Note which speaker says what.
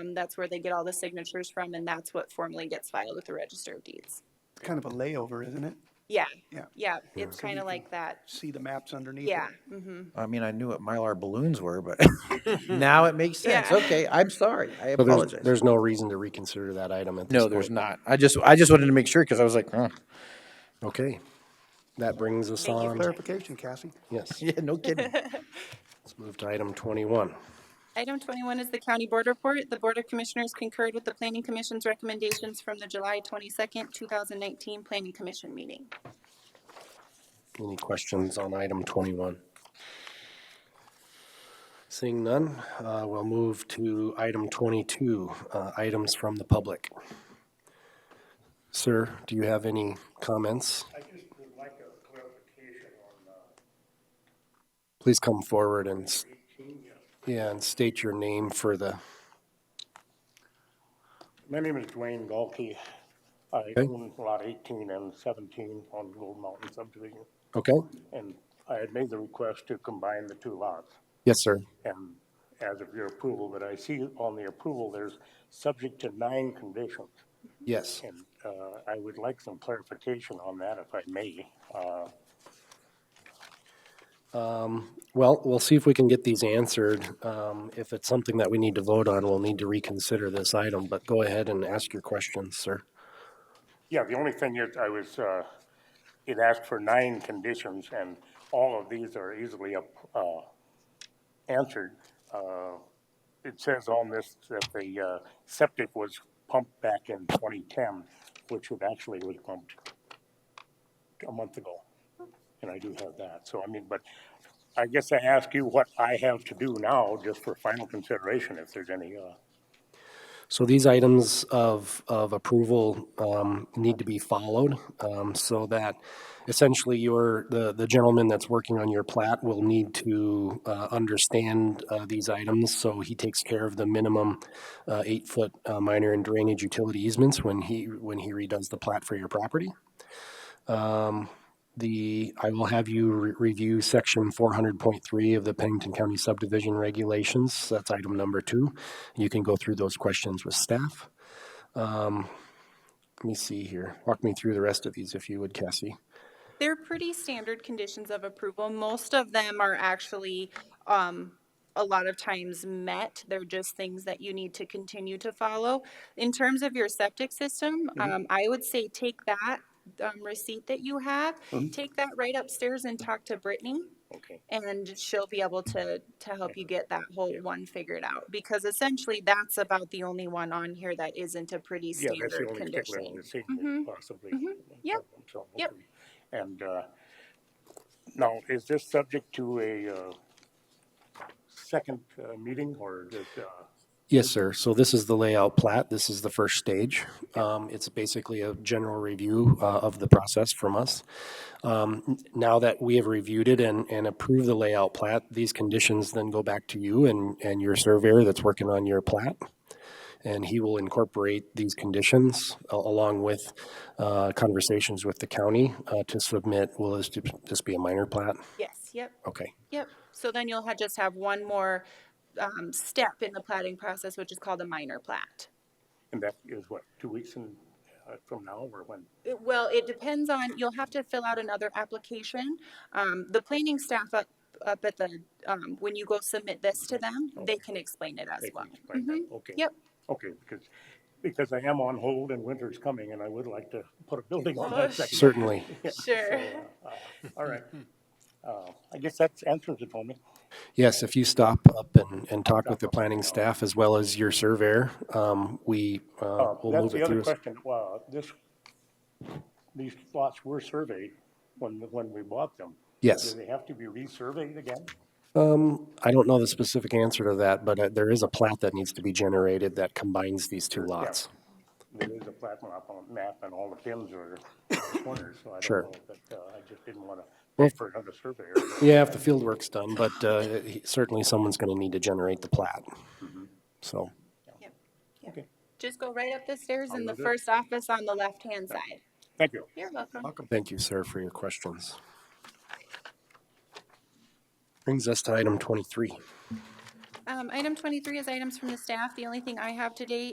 Speaker 1: and Um, that's where they get all the signatures from, and that's what formally gets filed with the Register of Deeds.
Speaker 2: Kind of a layover, isn't it?
Speaker 1: Yeah,
Speaker 2: Yeah.
Speaker 1: yeah, it's
Speaker 2: So you
Speaker 1: kind of
Speaker 2: can-
Speaker 1: like that.
Speaker 2: See the maps underneath it?
Speaker 1: Yeah, hmm
Speaker 3: I mean, I knew what Mylar balloons were, but now it makes sense.
Speaker 1: Yeah.
Speaker 3: Okay, I'm sorry. I
Speaker 4: So there's,
Speaker 3: apologize.
Speaker 4: there's no reason to reconsider that item at this point?
Speaker 3: No, there's not. I just, I just wanted to make sure because I was like, huh.
Speaker 4: Okay. That brings us
Speaker 1: Thank you.
Speaker 4: on,
Speaker 2: Clarification, Cassie.
Speaker 4: yes,
Speaker 3: Yeah, no kidding.
Speaker 4: let's move to item 21.
Speaker 1: Item twenty-one is the county board report. The Board of Commissioners concurred with the Planning Commission's recommendations from the July twenty-second, two thousand nineteen Planning Commission meeting.
Speaker 4: Any questions on item 21? Seeing none, uh, we'll move to item 22, uh, items from the public. Sir, do you have any comments?
Speaker 5: I just would like a clarification on uh,
Speaker 4: Please come forward and, s-
Speaker 5: 18. yes.
Speaker 4: yeah, and state your name for the,
Speaker 5: My name is Dwayne Galkey. I
Speaker 4: Okay.
Speaker 5: own lot 18 and 17 on Gold Mountain subdivision.
Speaker 4: okay?
Speaker 5: And I had made the request to combine the two lots.
Speaker 4: Yes, sir.
Speaker 5: And as of your approval, but I see on the approval, there's subject to nine conditions.
Speaker 4: Yes.
Speaker 5: And uh, I would like some clarification on that if I may. Uh,
Speaker 4: Well, we'll see if we can get these answered. Um, If it's something that we need to vote on, we'll need to reconsider this item, but go ahead and ask your questions, sir.
Speaker 5: Yeah, the only thing is, I was, uh, it asked for nine conditions, and all of these are easily up- uh, answered. Uh, It says on this that the uh, septic was pumped back in 2010, which it actually was pumped a month ago, and I do have that. So, I mean, but I guess I ask you what I have to do now, just for final consideration, if there's any, uh,
Speaker 4: So these items of, of approval um, need to be followed um, so that essentially your, the, the gentleman that's working on your plat will need to uh, understand uh, these items. So he takes care of the minimum uh, eight-foot uh, minor and drainage utility easements when he, when he redoes the plat for your property. the, I will have you re- review section four hundred point three of the Pennington County subdivision regulations. That's item number two. You can go through those questions with staff. Um, Let me see here. Walk me through the rest of these if you would, Cassie.
Speaker 1: They're pretty standard conditions of approval. Most of them are actually, um, a lot of times met. They're just things that you need to continue to follow. In terms of your septic system,
Speaker 5: Mm-hmm.
Speaker 1: um, I would say take that, um, receipt that you have,
Speaker 5: Mm-hmm.
Speaker 1: take that right upstairs and talk to Brittany.
Speaker 5: okay.
Speaker 1: And she'll be able to, to help you get that whole one figured out, because essentially that's about the only one on here that isn't a pretty
Speaker 5: Yeah, that's the
Speaker 1: standard
Speaker 5: only particular one
Speaker 1: condition.
Speaker 5: that's
Speaker 1: Mhm.
Speaker 5: seen possibly.
Speaker 1: Yep.
Speaker 5: So,
Speaker 1: Yep.
Speaker 5: okay. And uh, now, is this subject to a uh, second uh, meeting or is it, uh,
Speaker 4: Yes, sir. So this is the layout plat. This is the first stage. Um, It's basically a general review uh, of the process from us. Um, n- Now that we have reviewed it and, and approved the layout plat, these conditions then go back to you and, and your surveyor that's working on your plat. And he will incorporate these conditions a- along with uh, conversations with the county uh, to submit, will this ju- just be a minor plat?
Speaker 1: Yes, yep.
Speaker 4: Okay.
Speaker 1: Yep, so then you'll ha just have one more, um, step in the plating process, which is called a minor plat.
Speaker 5: and that is what, two weeks and, uh, from now or when?
Speaker 1: It- Well, it depends on, you'll have to fill out another application. Um, the planning staff up, up at the, um, when you go submit this to them, they can explain it as
Speaker 5: they can
Speaker 1: well. Mm-hmm.
Speaker 5: explain that? Okay.
Speaker 1: Yep,
Speaker 5: Okay, because, because I am on hold and winter's coming and I would like to put a building on that second.
Speaker 4: Certainly.
Speaker 1: sure.
Speaker 5: All right. Uh, I guess that's answers it for me.
Speaker 4: Yes, if you stop up and, and talk with the planning staff as well as your surveyor, um, we, uh,
Speaker 5: Uh,
Speaker 4: we'll
Speaker 5: That's
Speaker 4: move
Speaker 5: the
Speaker 4: it
Speaker 5: other
Speaker 4: through.
Speaker 5: question. Well, this, these lots were surveyed when, when we bought them.
Speaker 4: Yes. um,
Speaker 5: Do they have to be resurveyed again?
Speaker 4: I don't know the specific answer to that, but uh, there is a plat that needs to be generated that combines these two lots.
Speaker 5: There is a plat map on, map and all the pins are corners, so I
Speaker 4: Sure.
Speaker 5: don't know, but, uh, I just didn't wanna pay for another surveyor.
Speaker 4: Yeah, if the field work's done, but, uh, he- certainly someone's gonna need to generate the plat.
Speaker 5: Mm-hmm.
Speaker 4: So,
Speaker 1: Yep.
Speaker 5: Okay.
Speaker 1: Just go right up the stairs in
Speaker 5: I'll
Speaker 1: the
Speaker 5: do it.
Speaker 1: first office on the left-hand side.
Speaker 5: Thank you.
Speaker 1: You're welcome.
Speaker 4: thank you, sir, for your questions. Brings us to item twenty-three.
Speaker 1: Um, item twenty-three is items from the staff. The only thing I have today